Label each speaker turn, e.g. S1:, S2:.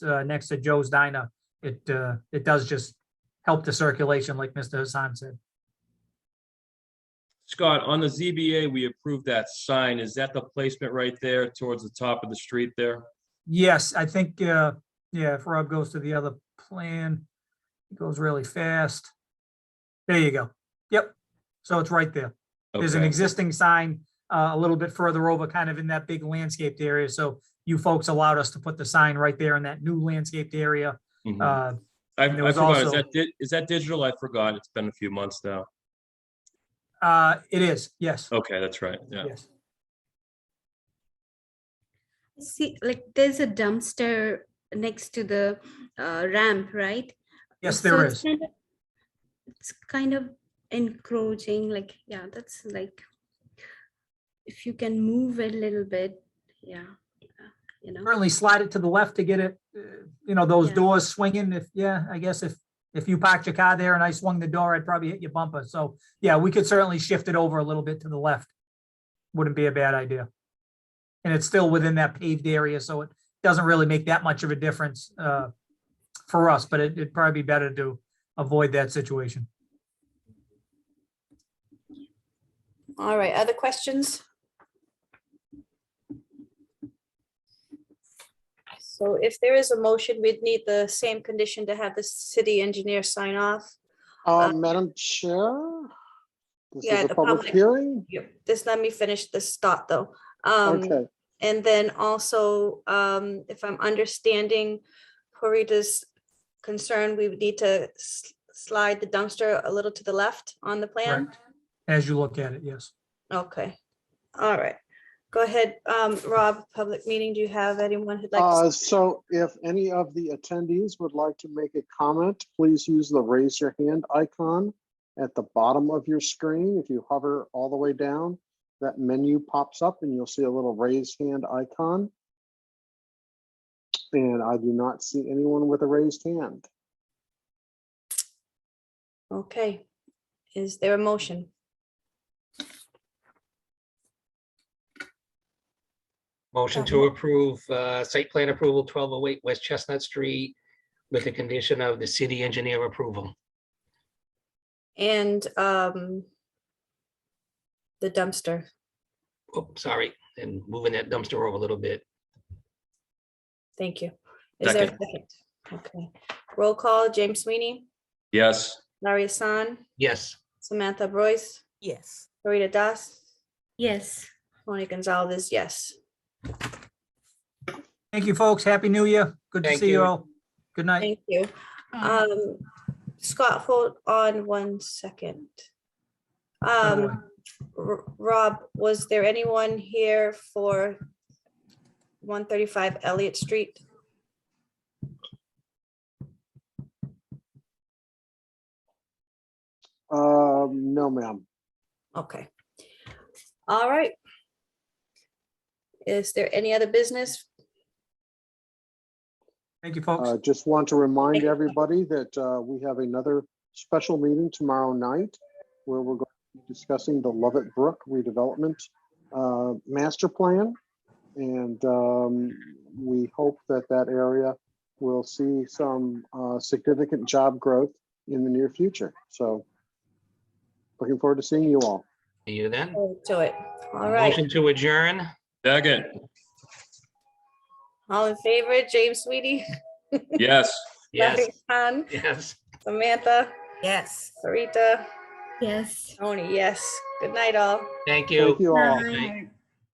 S1: uh, next to Joe's Diner, it, uh, it does just help the circulation, like Mr. Hassan said.
S2: Scott, on the ZBA, we approved that sign. Is that the placement right there towards the top of the street there?
S1: Yes, I think, uh, yeah, if Rob goes to the other plan, it goes really fast. There you go. Yep. So it's right there. There's an
S2: Okay.
S1: existing sign uh, a little bit further over, kind of in that big landscaped area. So you folks allowed us to put the sign right there in that new landscaped area.
S2: Mhm.
S1: Uh,
S2: I I
S1: there was
S2: forgot, is
S1: also-
S2: that, di- is that digital? I forgot. It's been a few months now.
S1: uh, It is, yes,
S2: Okay, that's right. Yeah.
S1: yes.
S3: See, like there's a dumpster next to the uh, ramp, right?
S1: Yes,
S3: So
S1: there
S3: it's
S1: is.
S3: kind of- It's kind of encroaching, like, yeah, that's like, if you can move a little bit, yeah, yeah, you know,
S1: Certainly slide it to the left to get it, uh, you know, those
S3: Yeah.
S1: doors swinging. If, yeah, I guess if, if you parked your car there and I swung the door, I'd probably hit your bumper. So, yeah, we could certainly shift it over a little bit to the left. Wouldn't be a bad idea. And it's still within that paved area, so it doesn't really make that much of a difference uh, for us, but it- it'd probably be better to avoid that situation.
S4: All right, other questions? So if there is a motion, we'd need the same condition to have the city engineer sign off.
S5: Uh, Madam Chair? This
S4: yeah,
S5: is
S4: the
S5: a public
S4: public-
S5: hearing?
S4: Just let me finish this thought, though. Um,
S5: Okay,
S4: And then also, um, if I'm understanding Corita's concern, we would need to s- slide the dumpster a little to the left on the plan?
S1: Correct. As you look at it, yes.
S4: Okay, all right. Go ahead, um, Rob, public meeting, do you have anyone who'd like? to
S5: uh, so if any of the attendees would like to make a comment, please use the raise your hand icon at the bottom of your screen. If you hover all the way down, that menu pops up and you'll see a little raise hand icon. And I do not see anyone with a raised hand.
S4: Okay, is there a motion?
S6: Motion to approve uh, site plan approval 1208 West Chestnut Street with the condition of the city engineer approval.
S4: And um the dumpster,
S6: Oh, sorry, and moving that dumpster over a little bit.
S4: thank you. Is there a second? Okay, roll call, James Sweeney,
S2: Yes.
S4: Larry Hassan,
S6: Yes,
S4: Samantha Boyce,
S7: Yes.
S4: Rita Das,
S3: yes.
S4: Tony Gonzalez, yes.
S1: Thank you, folks. Happy New Year. Good to
S6: Thank
S1: see you
S6: you.
S1: all. Good night.
S4: Thank you. Um Scott, hold on one second. Um R- Rob, was there anyone here for 135 Elliott Street?
S5: Um, no, ma'am.
S4: Okay. All right. Is there any other business?
S1: Thank you, folks.
S5: Uh, Just want to
S4: Thank
S5: remind
S4: you.
S5: everybody that uh, we have another special meeting tomorrow night where we're going to be discussing the Lovett Brook redevelopment uh, master plan. And um, we hope that that area will see some uh, significant job growth in the near future. So looking forward to seeing you all.
S6: see you then.
S4: Oh, To it. All right.
S6: Motion to adjourn.
S2: Second.
S4: All in favor, James Sweetie?
S2: Yes.
S6: Yes,
S4: Larry Hahn,
S6: yes.
S4: Samantha,
S7: Yes.
S4: Sarita,
S3: Yes.
S4: Tony, yes. Good night, all.
S6: Thank you.
S5: Thank you all.
S6: Bye.